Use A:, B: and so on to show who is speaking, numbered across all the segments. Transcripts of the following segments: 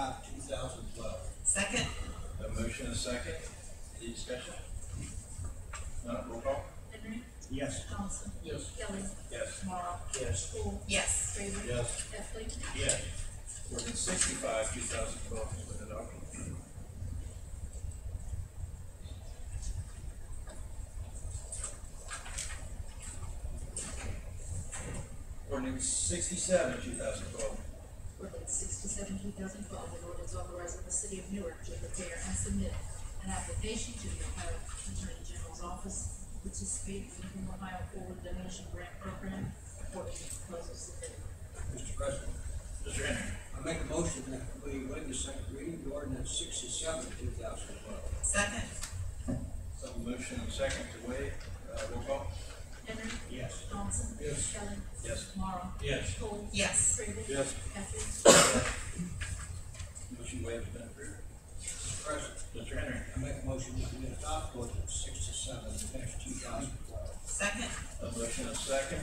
A: thousand twelve.
B: Second,
A: A motion and a second, any discussion? None, roll call?
C: Henry.
D: Yes.
C: Coniston.
A: Yes.
C: Kelly.
A: Yes.
C: Tomorrow.
D: Yes.
C: Cool.
B: yes.
C: Fraser.
A: Yes.
C: Heffley.
A: Yes. Ordinance sixty-five, two thousand twelve has been adopted. Ordinance sixty-seven, two thousand twelve.
C: Ordinance sixty-seven, two thousand twelve, an ordinance authorizing the city of Newark to prepare and submit an application to the Ohio Attorney General's Office to participate in the Ohio Forward Donation Grant Program for any proposals submitted.
E: Mr. President,
A: Mr. Henry.
E: I make a motion that we waive the second reading of ordinance sixty-seven, two thousand twelve.
B: Second,
A: Have a motion and a second to waive, uh, roll call?
C: Henry.
D: Yes.
C: Coniston.
A: Yes.
C: Kelly.
A: Yes.
C: Tomorrow.
A: Yes.
C: Cool.
B: yes.
C: Fraser.
A: Yes.
C: Heffley.
A: Motion waived has been approved.
E: Mr. President,
A: Mr. Henry.
E: I make a motion that we adopt ordinance sixty-seven, two thousand twelve.
B: Second,
A: A motion and a second,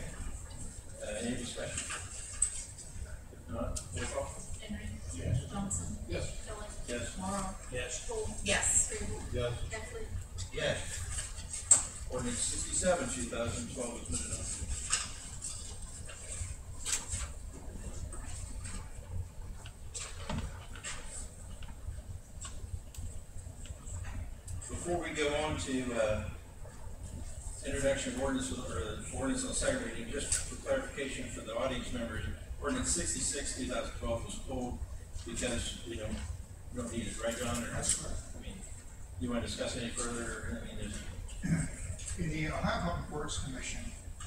A: uh, any discussion? If not, roll call?
C: Henry.
D: Yes.
C: Johnson.
A: Yes.
C: Kelly.
A: Yes.
C: Tomorrow.
D: Yes.
C: Cool.
B: yes.
C: Fraser.
A: Yes.
C: Heffley.
A: Yes. Ordinance sixty-seven, two thousand twelve has been adopted. Before we go on to, uh, introduction of ordinance, or ordinance on second reading, just for clarification for the audience members, ordinance sixty-six, two thousand twelve was pulled because we don't, we don't need it, right, John? Or- I mean, you want to discuss any further, I mean, there's,
F: The Ohio Public Works Commission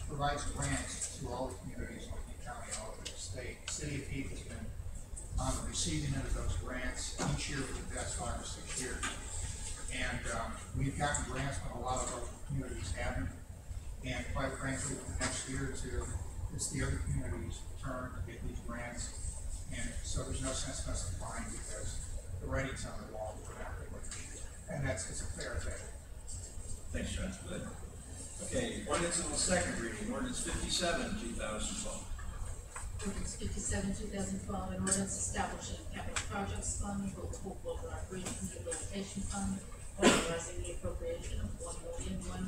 F: provides grants to all the communities in Lincoln County, all over the state. City of Heath has been on the receiving end of those grants each year for the past five or six years. And, um, we've gotten grants when a lot of other communities haven't. And quite frankly, for the next year or two, it's the other communities' turn to get these grants. And so there's no sense in us applying because the writing's on the wall, we're not really. And that's, it's a fair thing.
A: thanks, John, good. Okay, ordinance on the second reading, ordinance fifty-seven, two thousand twelve.
C: Ordinance fifty-seven, two thousand twelve, an ordinance establishing capital projects fund for the Hope Boulder Operations Rehabilitation Fund, authorizing the appropriation of one million, one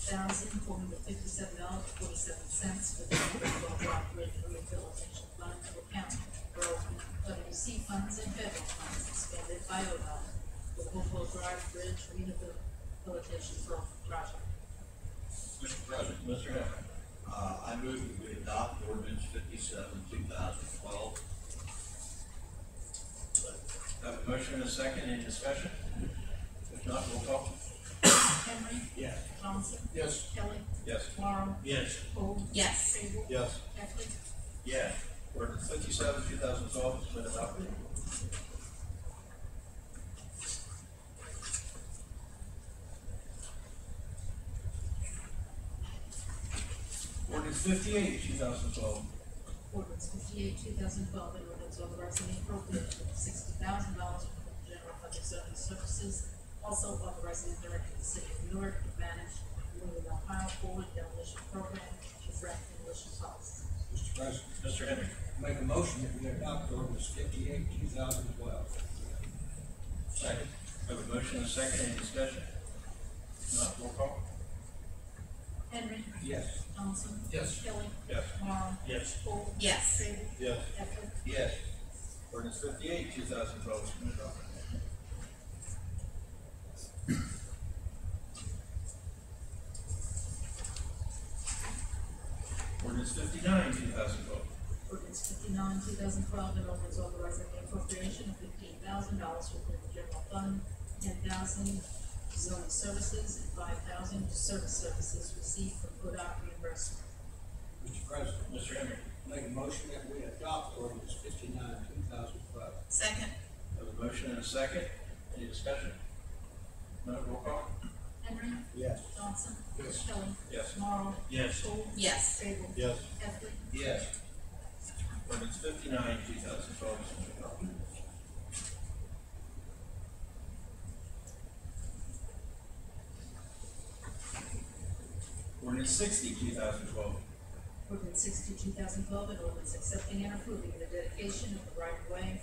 C: thousand, four hundred fifty-seven dollars, forty-seven cents for the Hope Boulder Operations Rehabilitation Fund to account for WC funds and federal funds expended by ODOT for the Hope Boulder Drive Bridge Rehabilitation Project.
G: Mr. President,
A: Mr. Heffernan.
G: uh, I move that we adopt ordinance fifty-seven, two thousand twelve.
A: Have a motion and a second, any discussion? If not, roll call.
C: Henry.
D: Yes.
C: Johnson.
A: Yes.
C: Kelly.
A: Yes.
C: Tomorrow.
D: Yes.
C: Cole.
B: Yes.
C: Sable.
A: Yes.
C: Heffley.
A: Yeah. Ordinance fifty-seven, two thousand twelve has been adopted. Ordinance fifty-eight, two thousand twelve.
C: Ordinance fifty-eight, two thousand twelve, an ordinance authorizing the appropriation of sixty thousand dollars for the general fund of zoning services, also authorizing the director of the city of Newark to manage the Louisville, Ohio forward demolition program to correct demolition policy.
E: Mr. President,
A: Mr. Henry.
E: I make a motion that we adopt ordinance fifty-eight, two thousand twelve.
A: Second. Have a motion and a second, any discussion? If Not roll call?
C: Henry.
E: Yes.
C: Johnson.
A: Yes.
C: Kelly.
A: Yes.
C: Tomorrow.
D: Yes.
C: Cole.
B: Yes.
C: Sable.
A: Yes.
C: Heffley.
A: Yes. Ordinance fifty-eight, two thousand twelve has been adopted. Ordinance fifty-nine, two thousand twelve.
C: Ordinance fifty-nine, two thousand twelve, an ordinance authorizing the appropriation of fifteen thousand dollars within the general fund, ten thousand to zoning services, and five thousand to service services received from ODOT reimbursement.
E: Mr. President,
A: Mr. Henry.
E: I make a motion that we adopt ordinance fifty-nine, two thousand twelve.
B: Second,
A: Have a motion and a second. Any discussion? Not roll call?
C: Henry.
E: Yes.
C: Johnson. Kelly.
A: Yes.
C: Tomorrow.
D: Yes.
C: Cole.
B: yes.
C: Sable.
A: Yes.
C: Heffley.
A: Yes. Ordinance fifty-nine, two thousand twelve has been adopted. Ordinance sixty, two thousand twelve.
C: Ordinance sixty, two thousand twelve, an ordinance accepting and approving the dedication of the right of way